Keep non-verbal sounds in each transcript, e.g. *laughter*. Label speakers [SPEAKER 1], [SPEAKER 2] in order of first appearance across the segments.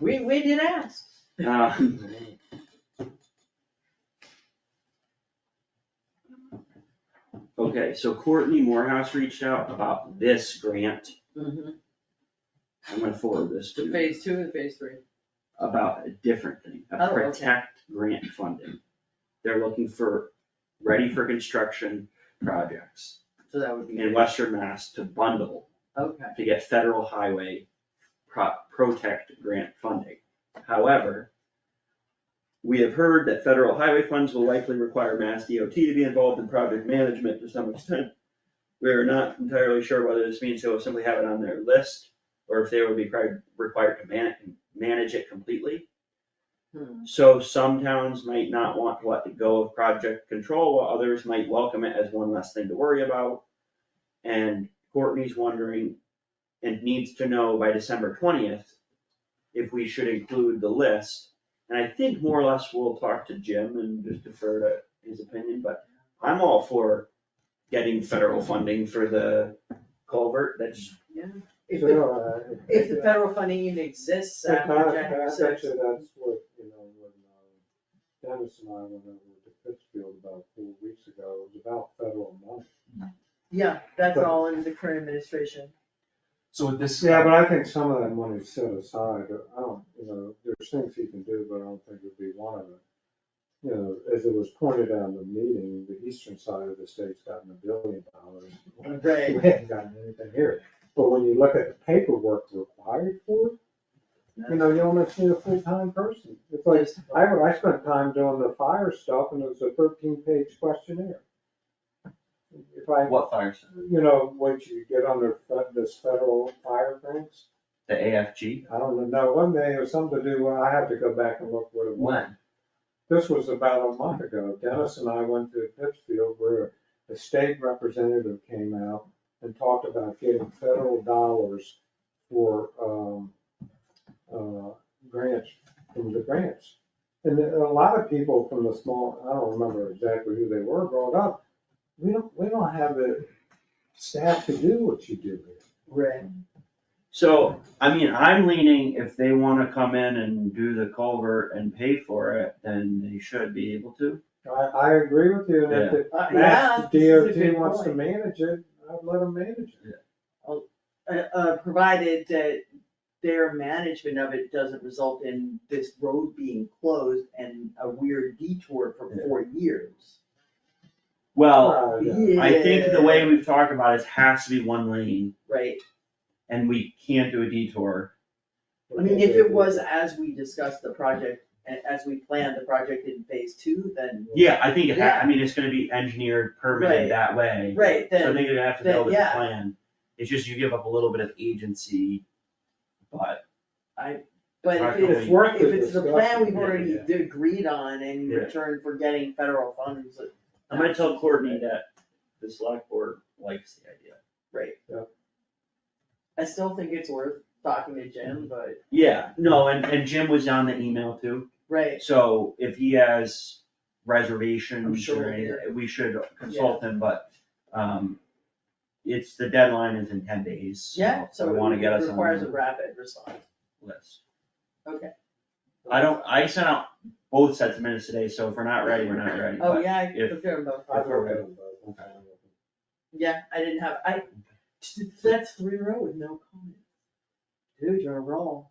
[SPEAKER 1] We, we did ask.
[SPEAKER 2] Um, Okay, so Courtney Morehouse reached out about this grant. I'm gonna forward this to you
[SPEAKER 1] Mm-hmm. Phase two and phase three.
[SPEAKER 2] about a different thing,
[SPEAKER 1] Oh,
[SPEAKER 2] a
[SPEAKER 1] okay.
[SPEAKER 2] protect grant funding. They're looking for ready for construction projects
[SPEAKER 1] So that would be,
[SPEAKER 2] in Western Mass to bundle
[SPEAKER 1] okay.
[SPEAKER 2] to get federal highway pro- protect grant funding. However, we have heard that federal highway funds will likely require Mass DOT to be involved in project management to some extent. We are not entirely sure whether this means they will simply have it on their list or if they will be pri- required to man- manage it completely.
[SPEAKER 1] Hmm.
[SPEAKER 2] So some towns might not want to let go of project control, while others might welcome it as one less thing to worry about. And Courtney's wondering and needs to know by December twentieth if we should include the list. And I think more or less we'll talk to Jim and just defer to his opinion, but I'm all for getting federal funding for the culvert, that's,
[SPEAKER 1] If
[SPEAKER 3] So,
[SPEAKER 1] the,
[SPEAKER 3] no, I-
[SPEAKER 1] if the federal funding even exists uh,
[SPEAKER 3] But
[SPEAKER 1] after
[SPEAKER 3] that-
[SPEAKER 1] January
[SPEAKER 3] that-
[SPEAKER 1] sixth.
[SPEAKER 3] Actually, that's what, you know, when uh, Dennis and I went over to Pittsfield about four weeks ago, it was about federal money.
[SPEAKER 1] Yeah, that's
[SPEAKER 3] But-
[SPEAKER 1] all in the current administration.
[SPEAKER 4] So with this,
[SPEAKER 3] Yeah, but I think some of that money's set aside, I don't, you know, there's things he can do, but I don't think it'd be one of them. You know, as it was pointed out in the meeting, the eastern side of the state's gotten a billion dollars.
[SPEAKER 1] Right.
[SPEAKER 3] We haven't gotten anything here, but when you look at the paperwork required for it, you know, you almost need a full-time person. It's like, I, I spent time doing the fire stuff and it was a thirteen page questionnaire. If I,
[SPEAKER 5] What fires?
[SPEAKER 3] you know, once you get under fe- this federal fire things,
[SPEAKER 5] The AFG?
[SPEAKER 3] I don't know, one day it was something to do, well, I have to go back and look what it was. This was about a month ago, Dennis and I went to Pittsfield where the state representative came out and talked about getting federal dollars for, um, uh, grants, from the grants. And then a lot of people from the small, I don't remember exactly who they were, brought up, we don't, we don't have the staff to do what you do here.
[SPEAKER 1] Right.
[SPEAKER 2] so, I mean, I'm leaning if they wanna come in and do the culvert and pay for it, then they should be able to.
[SPEAKER 3] I, I agree with you, and if the
[SPEAKER 1] Uh, yeah,
[SPEAKER 3] Mass
[SPEAKER 1] this is a
[SPEAKER 3] DOT
[SPEAKER 1] good
[SPEAKER 3] wants to
[SPEAKER 1] point.
[SPEAKER 3] manage it, I'd let them manage it.
[SPEAKER 1] Uh, uh, provided that their management of it doesn't result in this road being closed and a weird detour for
[SPEAKER 2] Yeah.
[SPEAKER 1] four years.
[SPEAKER 2] Well,
[SPEAKER 1] Oh,
[SPEAKER 3] Uh, yeah.
[SPEAKER 2] I think the
[SPEAKER 1] Yeah.
[SPEAKER 2] way we've talked about it has to be one lane
[SPEAKER 1] Right,
[SPEAKER 2] and we can't do a detour.
[SPEAKER 1] I mean, if it was as we discussed the project, a- as we planned the project in phase two, then,
[SPEAKER 2] Yeah, I think it ha, I mean, it's gonna be engineered
[SPEAKER 1] Right.
[SPEAKER 2] permitted that way.
[SPEAKER 1] right,
[SPEAKER 2] So I
[SPEAKER 1] then,
[SPEAKER 2] think you're gonna have to
[SPEAKER 1] then,
[SPEAKER 2] build a
[SPEAKER 1] yeah.
[SPEAKER 2] plan. It's just you give up a little bit of agency, but
[SPEAKER 1] but if
[SPEAKER 2] Practically.
[SPEAKER 1] it's,
[SPEAKER 3] It's worth the
[SPEAKER 1] if it's the plan
[SPEAKER 3] discussion.
[SPEAKER 1] we've
[SPEAKER 2] Yeah,
[SPEAKER 1] already agreed on in
[SPEAKER 2] Yeah.
[SPEAKER 1] return for getting federal funds. it-
[SPEAKER 2] I'm gonna tell Courtney that the select board likes the idea.
[SPEAKER 1] I still think it's worth talking to Jim, but,
[SPEAKER 2] Yeah, no, and, and Jim was on the email too,
[SPEAKER 1] right,
[SPEAKER 2] so if he has
[SPEAKER 1] I'm
[SPEAKER 2] reservations
[SPEAKER 1] sure
[SPEAKER 2] or
[SPEAKER 1] we'll hear.
[SPEAKER 2] anything, we should consult him, but, um, it's, the deadline is in ten days,
[SPEAKER 1] yeah,
[SPEAKER 2] so
[SPEAKER 1] so
[SPEAKER 2] we wanna get
[SPEAKER 1] it
[SPEAKER 2] us on
[SPEAKER 1] requires a
[SPEAKER 2] the
[SPEAKER 1] rapid response,
[SPEAKER 2] list.
[SPEAKER 1] okay.
[SPEAKER 2] I don't, I sent out both sets of minutes today, so if we're not ready, we're not ready,
[SPEAKER 1] Oh,
[SPEAKER 2] but
[SPEAKER 1] yeah, I
[SPEAKER 2] if-
[SPEAKER 1] looked at them both.
[SPEAKER 3] I've heard of them both.
[SPEAKER 1] Yeah, I didn't have, I, that's three row with no comment. Dude, you're on a roll.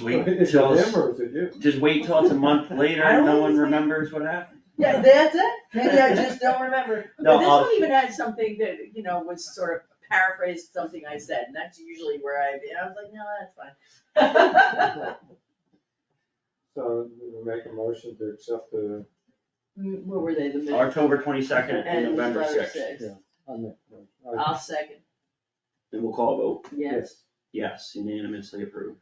[SPEAKER 1] *laughs*
[SPEAKER 2] wait till.
[SPEAKER 3] Is it them or is it you?
[SPEAKER 2] Just wait till it's a month later
[SPEAKER 1] I
[SPEAKER 2] and no
[SPEAKER 1] don't
[SPEAKER 2] one
[SPEAKER 1] think-
[SPEAKER 2] remembers what happened.
[SPEAKER 1] Yeah, that's it, maybe I just don't remember.
[SPEAKER 2] *laughs* No,
[SPEAKER 1] But this
[SPEAKER 2] I'll-
[SPEAKER 1] one even had something that, you know, was sort of paraphrased something I said, and that's usually where I, and I was like, no, that's fine.
[SPEAKER 3] So we make a motion to accept the,
[SPEAKER 1] Mm, What were they, the minutes?
[SPEAKER 2] October twenty-second and November
[SPEAKER 1] November
[SPEAKER 2] sixth,
[SPEAKER 3] yeah. I mean, I-
[SPEAKER 1] I'll second,
[SPEAKER 2] and we'll call a vote.
[SPEAKER 1] yes.
[SPEAKER 2] Yes, unanimously approved.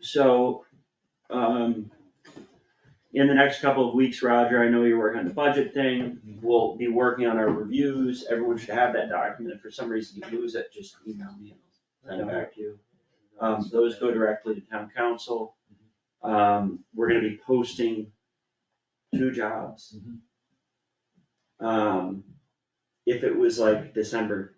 [SPEAKER 2] So, um, in the next couple of weeks, Roger, I know you're working on the budget thing. We'll be working on our reviews. Everyone should have that document. If for some reason you lose it, just email me and I'll send it back to you. Um, those go directly to town council. Um, we're gonna be posting two jobs. Um, if it was like December